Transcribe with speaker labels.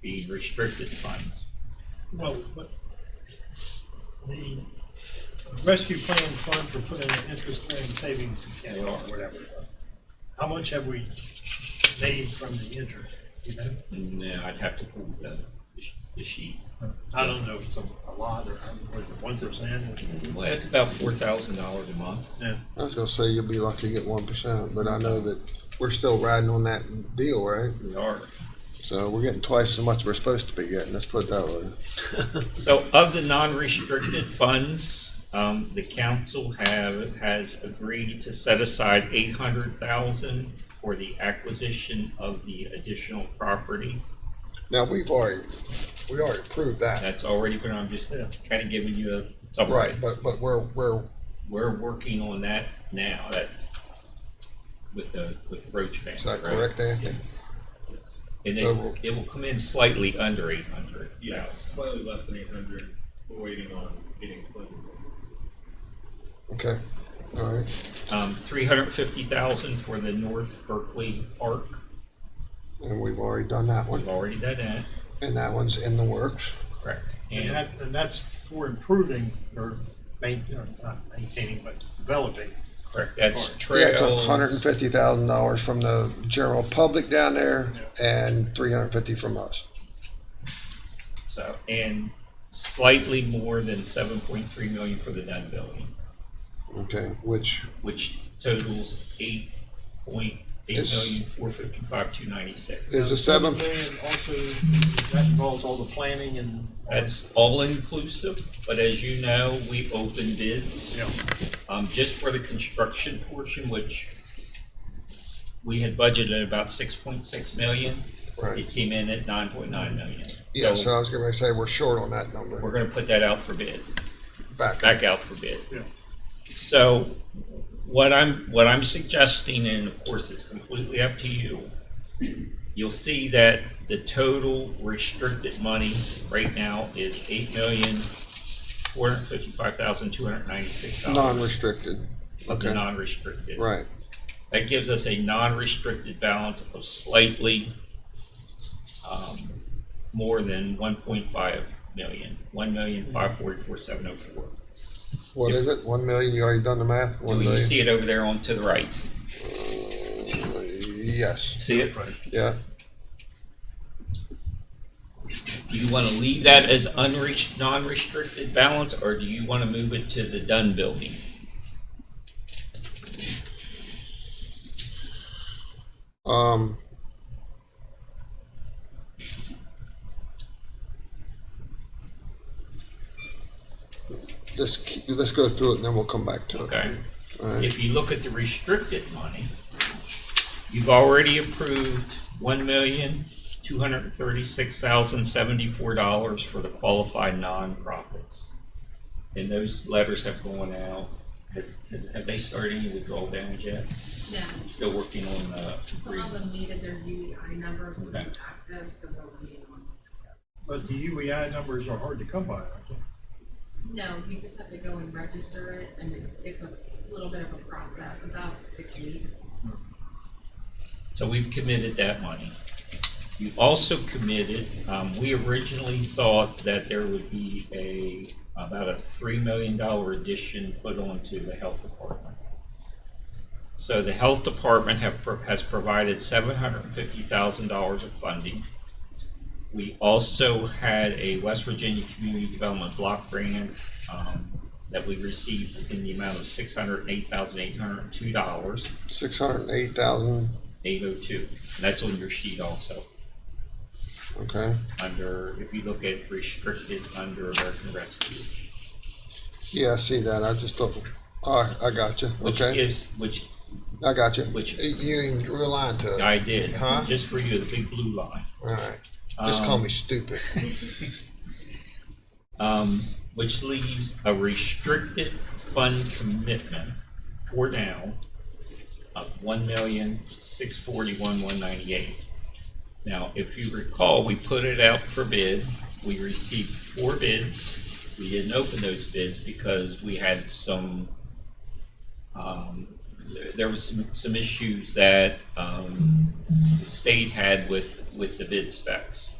Speaker 1: be restricted funds.
Speaker 2: Well, but the rescue plan funds were put in an interest-bearing savings account or whatever. How much have we made from the interest, you know?
Speaker 1: And uh, I'd have to pull the, the sheet.
Speaker 2: I don't know if it's a a lot or one percent.
Speaker 1: Well, it's about four thousand dollars a month.
Speaker 2: Yeah,
Speaker 3: I was gonna say you'll be lucky to get one percent, but I know that we're still riding on that deal, right?
Speaker 1: We are.
Speaker 3: So we're getting twice as much we're supposed to be getting. Let's put it that way.
Speaker 1: So of the non-restricted funds, um, the council have, has agreed to set aside eight hundred thousand for the acquisition of the additional property.
Speaker 3: Now we've already we already proved that,
Speaker 1: That's already, but I'm just
Speaker 2: Yeah.
Speaker 1: kind of giving you a summary.
Speaker 3: right? But but we're we're
Speaker 1: We're working on that now, that, with the, with Roach family.
Speaker 3: is that
Speaker 1: right?
Speaker 3: correct, Anthony?
Speaker 4: Yes, yes,
Speaker 1: And it,
Speaker 3: Oh.
Speaker 1: will- it will come in slightly under eight hundred.
Speaker 4: yes, slightly less than eight hundred, we're waiting on getting approval.
Speaker 3: Okay, all right.
Speaker 1: Um, three hundred fifty thousand for the North Berkeley Park,
Speaker 3: And we've already done that one,
Speaker 1: we've already done that,
Speaker 3: and that one's in the works.
Speaker 1: correct?
Speaker 2: and
Speaker 1: And
Speaker 2: that's, and that's for improving or main, or not maintaining, but developing.
Speaker 1: Correct, that's
Speaker 3: Yeah, it's a
Speaker 1: trails.
Speaker 3: hundred and fifty thousand dollars from the general public down there, and three hundred fifty from us.
Speaker 1: So, and slightly more than seven point three million for the Dunn Building,
Speaker 3: Okay, which
Speaker 1: which totals eight point eight
Speaker 3: It's-
Speaker 1: million, four fifty-five, two ninety-six.
Speaker 3: is a seven.
Speaker 2: And also, that involves all the planning and.
Speaker 1: That's all inclusive, but as you know, we open bids.
Speaker 2: Yeah.
Speaker 1: Um, just for the construction portion, which we had budgeted about six point six million.
Speaker 3: Right.
Speaker 1: It came in at nine point nine million.
Speaker 3: Yeah, so
Speaker 1: So
Speaker 3: I was gonna say we're short on that
Speaker 1: we're
Speaker 3: number.
Speaker 1: gonna put that out for bid,
Speaker 3: Back.
Speaker 1: back out for bid.
Speaker 2: Yeah.
Speaker 1: So what I'm, what I'm suggesting, and of course it's completely up to you, you'll see that the total restricted money right now is eight million, four hundred fifty-five thousand, two hundred ninety-six dollars
Speaker 3: Non-restricted.
Speaker 1: of the
Speaker 3: Okay,
Speaker 1: non-restricted.
Speaker 3: right.
Speaker 1: That gives us a non-restricted balance of slightly um, more than one point five million, one million, five forty-four, seven oh four.
Speaker 3: What is it? One million? You already done the math? One
Speaker 1: You
Speaker 3: million?
Speaker 1: see it over there on to the right.
Speaker 3: Yes,
Speaker 1: See it?
Speaker 3: yeah.
Speaker 1: Do you want to leave that as unreached, non-restricted balance, or do you want to move it to the Dunn building?
Speaker 3: Um. Let's, keep- let's go through it and then we'll come back to it.
Speaker 1: Okay.
Speaker 3: All right.
Speaker 1: If you look at the restricted money, you've already approved one million, two hundred and thirty-six thousand, seventy-four dollars for the qualified nonprofits. And those letters have gone out. Has, have they started any of the drawdowns yet?
Speaker 5: No,
Speaker 1: Still working on the
Speaker 5: some of them
Speaker 1: agreements.
Speaker 5: needed their UEI numbers to be
Speaker 1: Okay.
Speaker 5: active, so they'll be on.
Speaker 2: But the UEI numbers are hard to come by, aren't they?
Speaker 5: No, you just have to go and register it, and it- it's a little bit of a process, about six weeks.
Speaker 1: So we've committed that money. You also committed, um, we originally thought that there would be a, about a three million dollar addition put onto the health department. So the health department have, pro- has provided seven hundred and fifty thousand dollars of funding. We also had a West Virginia Community Development Block Grant, um, that we received in the amount of six hundred and eight thousand eight hundred and two dollars
Speaker 3: Six hundred and eight thousand,
Speaker 1: eight oh two. That's on your sheet also,
Speaker 3: okay.
Speaker 1: under, if you look at restricted under American Rescue.
Speaker 3: Yeah, I see that. I just don't, oh, I got you.
Speaker 1: Which
Speaker 3: Okay,
Speaker 1: gives, which
Speaker 3: I got you.
Speaker 1: which-
Speaker 3: You even drew a line to it. All
Speaker 1: I did,
Speaker 3: Huh?
Speaker 1: just for you, the big blue line.
Speaker 3: right. Just call
Speaker 1: Um,
Speaker 3: me stupid.
Speaker 1: Um, which leaves a restricted fund commitment for now of one million, six forty-one, one ninety-eight. Now, if you recall, we put it out for bid, we received four bids. We didn't open those bids because we had some, um, there- there was some, some issues that, um, the state had with, with the bid specs.